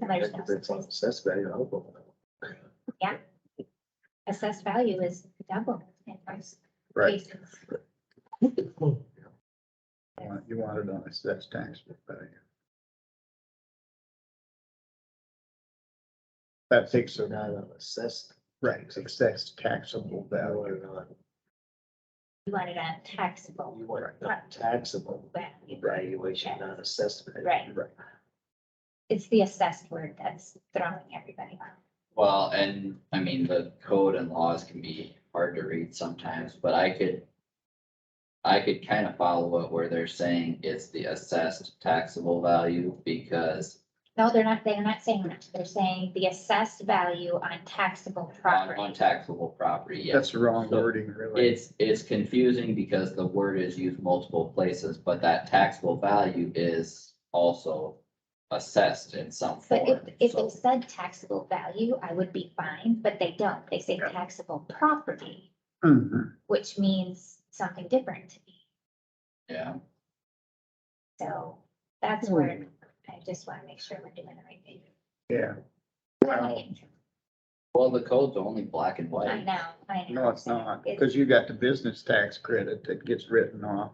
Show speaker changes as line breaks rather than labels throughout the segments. And there's no
If it's on
assessed-
assessed value, I hope.
assessed value is double in most
Right.
cases.
You want- You want it on assessed tax value. That takes,
So
a-
not on assessed.
right, assessed taxable
You
value.
want it on-
You want it on taxable
you want it on taxable
value.
valuation, not assessed. value.
Right.
Right.
It's the assessed word that's throwing everybody off.
Well, and I mean, the code and laws can be hard to read sometimes, but I could. I could kind of follow it where they're saying it's the assessed taxable value because
No, they're not, they're not saying that. They're saying the assessed value on taxable
on, on
property.
taxable property, yes.
That's the wrong wording, really.
It's, it's confusing because the word is used multiple places, but that taxable value is also assessed in some
But if,
form.
if
so-
it said taxable value, I would be fine, but they don't. They say
Yeah.
taxable property,
Mhm.
which means something different to me.
Yeah,
So
Hmm.
that's where I just want to make sure we're doing the right thing.
Yeah,
I don't wanna get in trouble.
well, the code's only black and
I
white.
know, I know.
no, it's not, because you got the business tax credit that gets written off.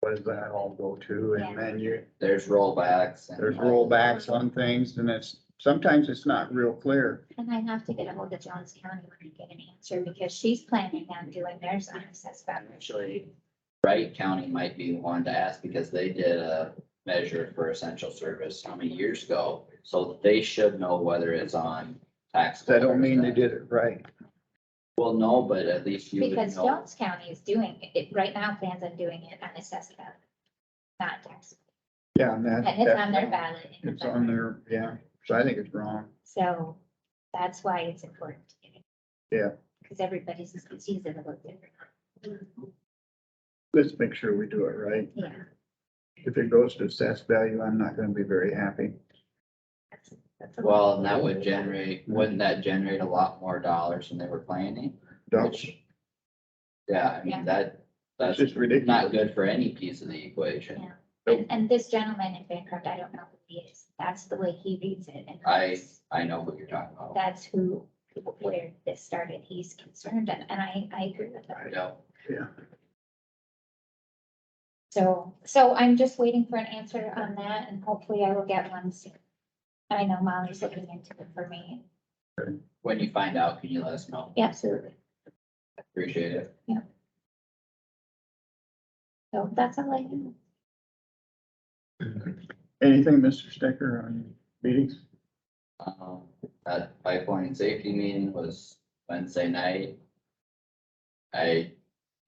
What does that all go to? And then you,
There's rollbacks and.
there's rollbacks on things and it's, sometimes it's not real clear.
And I have to get ahold of Jones County when I get an answer because she's planning on doing theirs on assessed value.
Actually, Wright County might be one to ask because they did a measure for essential service how many years ago? So they should know whether it's on tax.
That don't mean they did it right.
Well, no, but at least you would
Because
know.
Jones County is doing it- it, right now plans on doing it on assessed value, not tax.
Yeah, and that.
And it's on their
that-
ballot. in
It's on
November.
there, yeah. So I think it's wrong.
So that's why it's important. to get it.
Yeah.
Because everybody's sees it a little different.
Let's make sure we do it right.
Yeah.
If it goes to assessed value, I'm not gonna be very happy.
that's- that's a little-
Well, and that would generate, wouldn't that generate a lot more dollars than they were planning?
Don't,
Which- Yeah, I
Yeah.
mean, that,
that's
that's
just
not
ridiculous.
good for any piece of the equation.
Yeah. And, and this gentleman in Bancroft, I don't know who he is. That's the way he reads it. and
I-
that's-
I know what you're talking about.
That's who, where this started. He's concerned and, and I, I agree with that.
Yeah.
So, so I'm just waiting for an answer on that and hopefully I will get one soon. I know Molly's looking into it for me.
When you find out, can you let us know?
Absolutely.
Appreciate it.
So that's all I have.
Anything, Mr. Stecker, on meetings?
Um, that pipeline safety meeting was Wednesday night. I,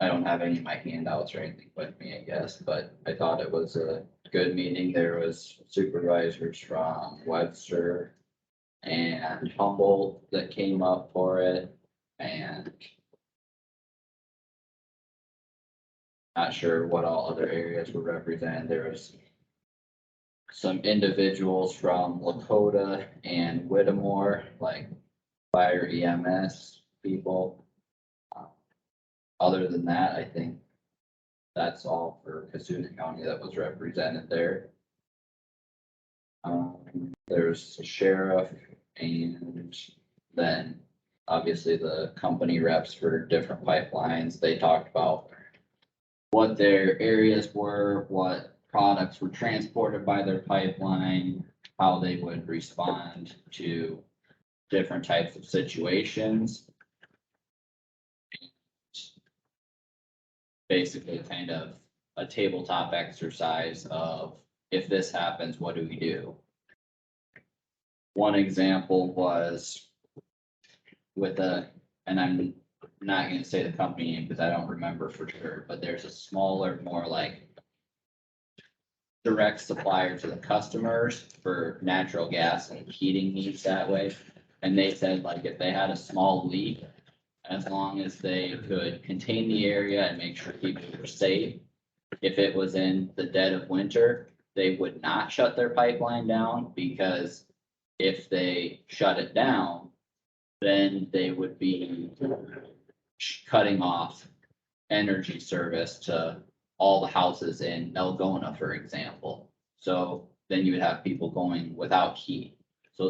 I don't have any of my handouts or anything with me, I guess, but I thought it was a good meeting. There was supervisors from Webster and Humboldt that came up for it and not sure what all other areas were represented. There was some individuals from Lakota and Whittemore, like fire EMS people. Um, Other than that, I think that's all for Cassuth County that was represented there. Um, there's sheriff and then obviously the company reps for different pipelines. They talked about what their areas were, what products were transported by their pipeline, how they would respond to different types of situations. Basically, kind of a tabletop exercise of if this happens, what do we do? One example was with a, and I'm not gonna say the company name because I don't remember for sure, but there's a smaller, more like direct supplier to the customers for natural gas and heating needs that way. And they said like if they had a small leak, as long as they could contain the area and make sure people were safe. If it was in the dead of winter, they would not shut their pipeline down because if they shut it down, then they would be sh- cutting off energy service to all the houses in Elgona, for example. So then you would have people going without heat.